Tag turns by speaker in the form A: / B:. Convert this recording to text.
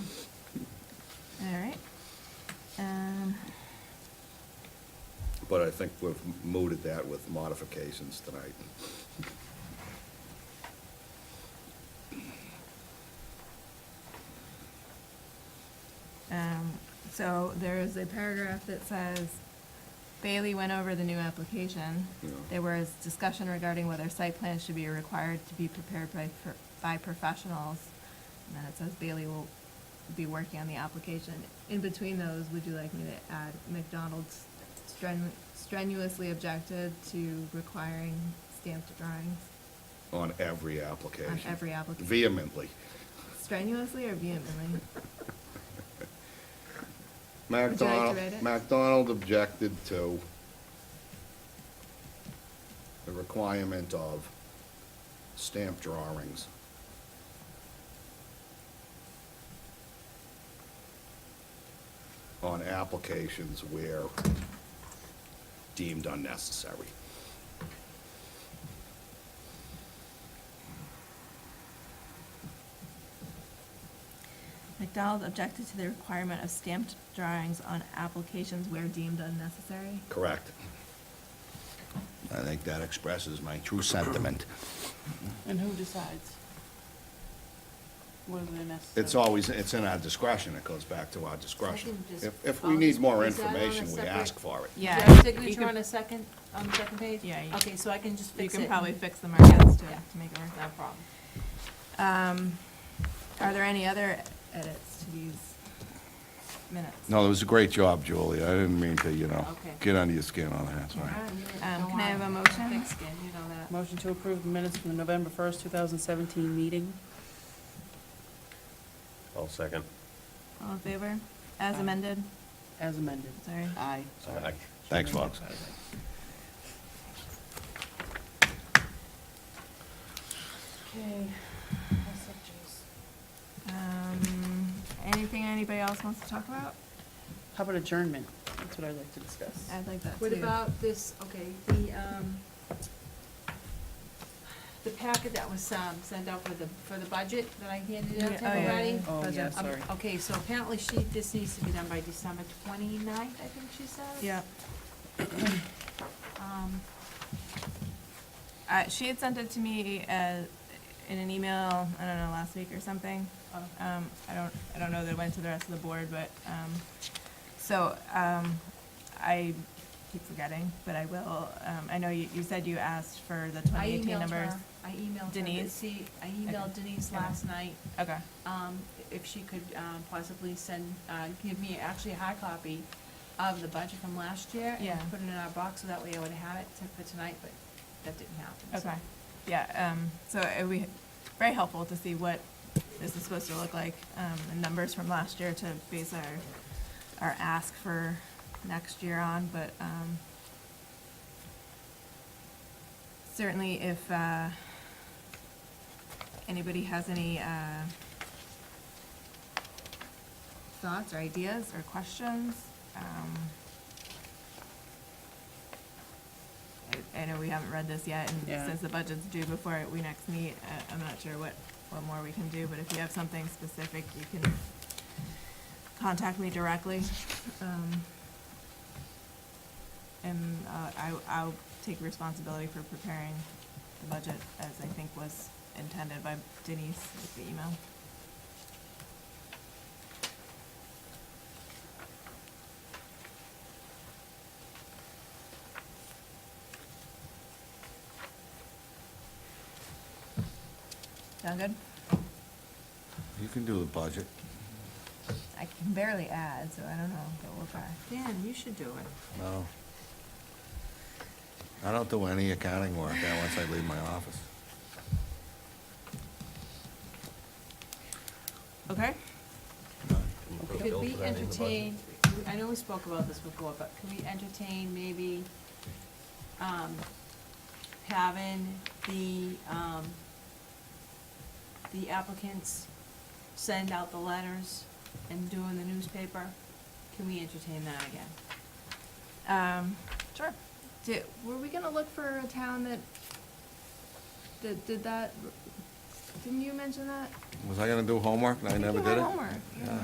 A: All right. Um,
B: But I think we've mooted that with modifications tonight.
A: um, So there is a paragraph that says Bailey went over the new application.
B: Yeah.
A: There was discussion regarding whether site plans should be required to be prepared by, pro- by professionals. And then it says Bailey will be working on the application. In between those, would you like me to add McDonald's strenu- strenuously objected to requiring stamped drawings?
B: On every application.
A: every application.
B: Vehemently.
A: Strenuously or vehemently? like to
B: McDonald,
A: read it?
B: McDonald objected to the requirement of stamp drawings. On applications where deemed unnecessary.
A: McDonald objected to the requirement of stamped drawings on applications where deemed unnecessary.
B: Correct.
C: I think that expresses my true sentiment.
D: And who decides? Whether they're necessary?
B: It's always, it's in our discretion, it goes back to our discretion.
E: Second, just-
B: If, if we need more
E: Is that on a
B: information, we
E: separate-
B: ask for it.
A: Yeah.
E: Is there a
D: You
E: signature
D: could-
E: on a second, on the second page?
A: Yeah, you-
E: Okay, so I can just
A: You
E: fix it.
A: can probably fix the markings to,
E: Yeah.
A: to make it work.
E: No problem.
A: Um, are there any other edits to these minutes?
C: No, it was a great job, Julie. I didn't mean to, you know,
E: Okay.
C: get under your skin on that, sorry.
A: Um,
E: Don't
A: can I have a
E: worry.
A: motion?
E: Thick skin, you know that.
D: Motion to approve the minutes from the November 1st, 2017 meeting.
F: I'll second.
A: All in favor? As amended?
D: As amended.
A: Sorry.
D: Aye.
F: Aye.
C: Thanks, folks.
E: Okay.
A: Um, anything anybody else wants to talk about?
D: How about adjournment? That's what I'd like to discuss.
A: I'd like that too.
E: What about this, okay, the, um, the packet that was, um, sent out for the, for the budget that I handed out
A: Yeah,
E: to
A: oh, yeah,
E: everybody?
A: yeah.
D: Oh, yeah,
A: Budget.
E: Um,
D: sorry.
E: Okay, so apparently she, this needs to be done by December twenty-ninth, I think she said.
A: Yeah.
E: Um,
A: Uh, she had sent it to me, uh, in an email, I don't know, last week or something.
E: oh,
A: Um, I don't, I don't know that it went to the rest of the board, but, um, so, um, I keep forgetting, but I will. Um, I know you, you said you asked for the
E: I
A: twenty eighteen
E: emailed
A: numbers.
E: her, I emailed her, but
A: Denise?
E: see, I emailed Denise
A: Yeah.
E: last night,
A: Okay,
E: um, if she could, um, possibly send, uh, give me actually a hard copy of the budget from last year
A: Yeah.
E: and put it in our box, so that way I would have it to- for tonight, but that didn't happen. so.
A: okay. Yeah, um, so it would be very helpful to see what this is supposed to look like, um, the numbers from last year to base our, our ask for next year on, but, um, certainly if, uh, anybody has any, uh, thoughts or ideas or questions, um, I- I know we haven't read this yet, and
D: Yeah.
A: since the budget's due before we next meet, I- I'm not sure what, what more we can do, but if you have something specific, you can contact me directly. Um, And uh, I, I'll take responsibility for preparing the budget as I think was intended by Denise with the email. Sound good?
C: You can do the budget.
A: I can barely add, so I don't know, but we'll try.
E: Dan, you should do it.
C: No. I don't do any accounting work uh, once I leave my office.
A: Okay?
F: Can you put a
E: Could
F: bill
E: we
F: for that in the budget?
E: entertain, I know we spoke about this before, but could we entertain maybe, um, having the, um, the applicants send out the letters and doing the newspaper? Can we entertain that again?
A: Um, sure. Did, were we gonna look for a town that, that did that? Didn't you mention that?
C: Was I gonna do homework and I
A: think
C: never
A: you
C: did
A: had
C: it?
A: homework, yeah.
C: Yeah.